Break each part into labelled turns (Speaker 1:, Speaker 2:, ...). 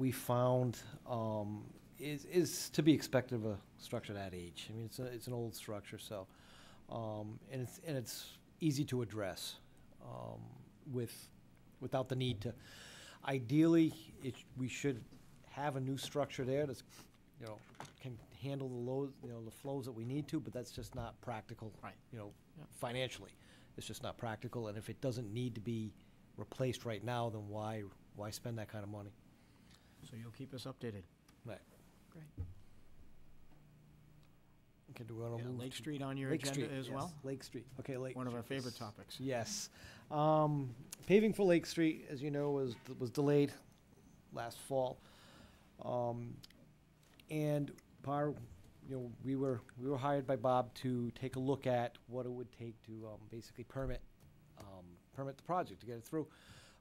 Speaker 1: we found um, is, is to be expected of a structure that age. I mean, it's, a, it's an old structure, so, um, and it's, and it's easy to address um, with, without the need to, ideally, it, we should have a new structure there that's, you know, can handle the loads, you know, the flows that we need to, but that's just not practical.
Speaker 2: Right.
Speaker 1: You know,
Speaker 2: Yeah.
Speaker 1: financially, it's just not practical, and if it doesn't need to be replaced right now, then why, why spend that kind of money?
Speaker 2: So you'll keep us updated.
Speaker 1: Right.
Speaker 2: Great.
Speaker 1: Okay, do we want
Speaker 2: Yeah,
Speaker 1: to move to?
Speaker 2: Lake Street on your
Speaker 1: Lake
Speaker 2: agenda
Speaker 1: Street,
Speaker 2: as
Speaker 1: yes,
Speaker 2: well?
Speaker 1: Lake Street, okay, Lake.
Speaker 2: One of our
Speaker 1: Street
Speaker 2: favorite
Speaker 1: is-
Speaker 2: topics.
Speaker 1: Yes. Um, paving for Lake Street, as you know, was, was delayed last fall. Um, and par, you know, we were, we were hired by Bob to take a look at what it would take to, um, basically permit, um, permit the project to get it through.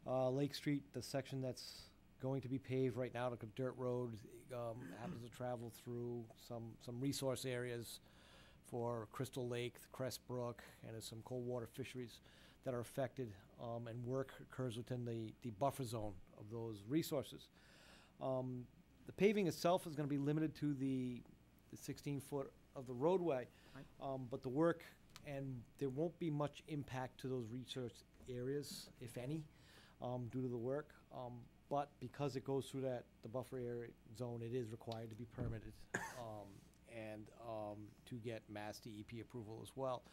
Speaker 1: Uh, Lake Street, the section that's going to be paved right now, like a dirt road, um, happens to travel through some, some resource areas for Crystal Lake, Crest Brook, and there's some cold water fisheries that are affected, um, and work occurs within the, the buffer zone of those resources. Um, the paving itself is gonna be limited to the, the sixteen foot of the roadway.
Speaker 2: Right.
Speaker 1: Um, but the work, and there won't be much impact to those research areas, if any, um, due to the work. Um, but because it goes through that, the buffer area zone, it is required to be permitted, um, and, um, to get Mass DEP approval as well.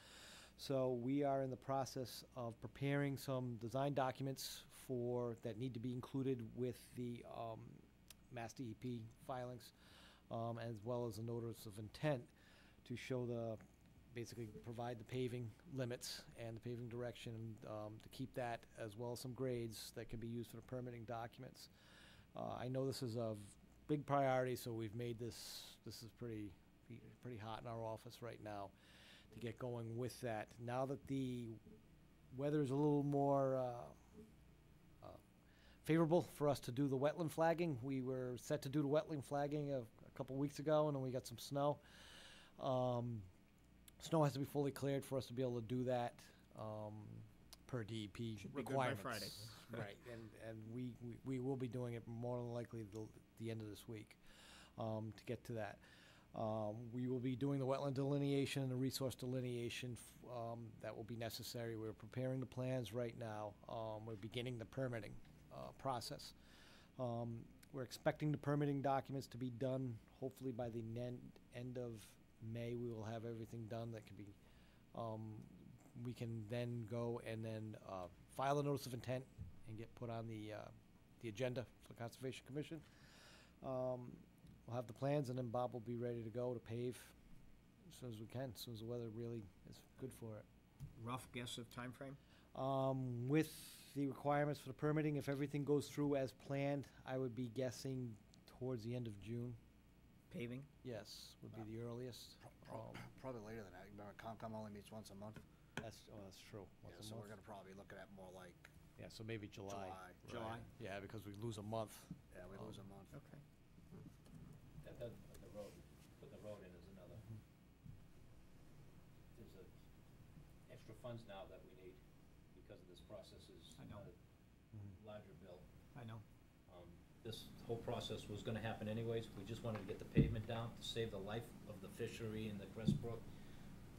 Speaker 1: So we are in the process of preparing some design documents for, that need to be included with the, um, Mass DEP filings, um, as well as a notice of intent to show the, basically provide the paving limits and the paving direction, um, to keep that, as well as some grades that can be used for the permitting documents. Uh, I know this is a v- big priority, so we've made this, this is pretty, be- pretty hot in our office right now to get going with that. Now that the weather is a little more, uh, uh, favorable for us to do the wetland flagging. We were set to do the wetland flagging a, a couple weeks ago, and then we got some snow. Um, snow has to be fully cleared for us to be able to do that, um, per DEP
Speaker 2: Should be good by
Speaker 1: requirements.
Speaker 2: Friday.
Speaker 1: Right, and, and we, we, we will be doing it more than likely the, the end of this week, um, to get to that. Um, we will be doing the wetland delineation and the resource delineation, f- um, that will be necessary. We're preparing the plans right now. Um, we're beginning the permitting, uh, process. Um, we're expecting the permitting documents to be done hopefully by the nen- end of May. We will have everything done that can be, um, we can then go and then, uh, file a notice of intent and get put on the, uh, the agenda for the Conservation Commission. Um, we'll have the plans and then Bob will be ready to go to pave as soon as we can, as soon as the weather really is good for it.
Speaker 2: Rough guess of time frame.
Speaker 1: Um, with the requirements for the permitting, if everything goes through as planned, I would be guessing towards the end of June.
Speaker 2: Paving?
Speaker 1: Yes, would be the earliest.
Speaker 3: Pro-
Speaker 1: Um,
Speaker 3: Probably later than that. Remember, Comcom only meets once a month.
Speaker 1: That's, oh, that's true.
Speaker 3: Yeah,
Speaker 1: Once a
Speaker 3: so we're
Speaker 1: month.
Speaker 3: gonna probably look at more like
Speaker 1: Yeah, so maybe July.
Speaker 3: July.
Speaker 2: July.
Speaker 1: Yeah, because we lose a month.
Speaker 3: Yeah, we
Speaker 1: Um,
Speaker 3: lose a month.
Speaker 2: Okay.
Speaker 4: That does, but the road, put the road in is another.
Speaker 2: Mm-hmm.
Speaker 4: There's a, extra funds now that we need because of this process is.
Speaker 2: I know. Mm-hmm.
Speaker 1: Mhm.
Speaker 4: a Larger bill.
Speaker 2: I know.
Speaker 4: Um, This whole process was gonna happen anyways, we just wanted to get the pavement down to save the life of the fishery and the Crest Brook.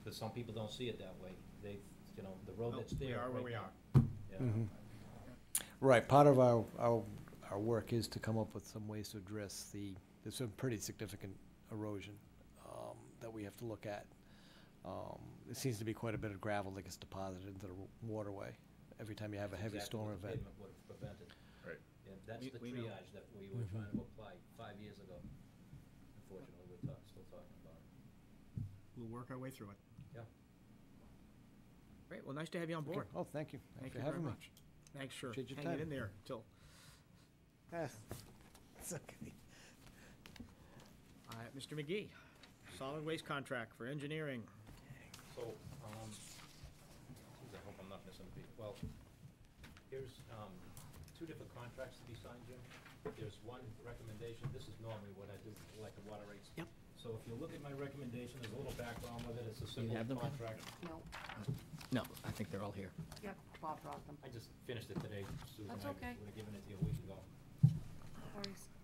Speaker 4: But some people don't see it that way, they, you know, the road
Speaker 2: Oh,
Speaker 4: that's there.
Speaker 2: We are where
Speaker 4: right
Speaker 2: we
Speaker 4: now.
Speaker 2: are.
Speaker 4: Yeah.
Speaker 2: Mm-hmm.
Speaker 1: Mhm. Right, part of our, our, our work is to come up with some ways to address the, there's some pretty significant erosion, um, that we have to look at. Um, it seems to be quite a bit of gravel that gets deposited into the waterway every time you have a
Speaker 4: That's
Speaker 1: heavy
Speaker 4: exactly
Speaker 1: storm
Speaker 4: what the
Speaker 1: event.
Speaker 4: Pavement would have prevented.
Speaker 5: Right.
Speaker 4: Yeah, that's
Speaker 2: We-
Speaker 4: the
Speaker 2: we know.
Speaker 4: triage that we were
Speaker 1: Mhm.
Speaker 4: trying to apply five years ago. Unfortunately, we're talk- still talking about it.
Speaker 2: We'll work our way through it.
Speaker 4: Yeah.
Speaker 2: Great, well, nice to have you on
Speaker 1: Okay.
Speaker 2: board.
Speaker 1: Oh, thank you. Thanks
Speaker 2: Thank you
Speaker 1: for
Speaker 2: very
Speaker 1: having me.
Speaker 2: much. Thanks for
Speaker 1: Appreciate your
Speaker 2: hanging
Speaker 1: time.
Speaker 2: in there till,
Speaker 1: Ah, It's okay.
Speaker 2: uh, Mr. McGee, solid waste contract for engineering.
Speaker 4: So, um, geez, I hope I'm not missing a beat. Well, here's, um, two different contracts to be signed, Jim. There's one recommendation, this is normally what I do, like the water rates.
Speaker 2: Yep.
Speaker 4: So if you look at my recommendation, there's a little background with it, it's a simple
Speaker 2: have them, Ken?
Speaker 4: contract.
Speaker 6: No,
Speaker 2: No, I think they're all here.
Speaker 6: yeah, Bob brought them,
Speaker 4: I just finished it today, Susan,
Speaker 6: That's
Speaker 4: I
Speaker 6: okay.
Speaker 4: would have given it to you a week ago.
Speaker 6: no worries.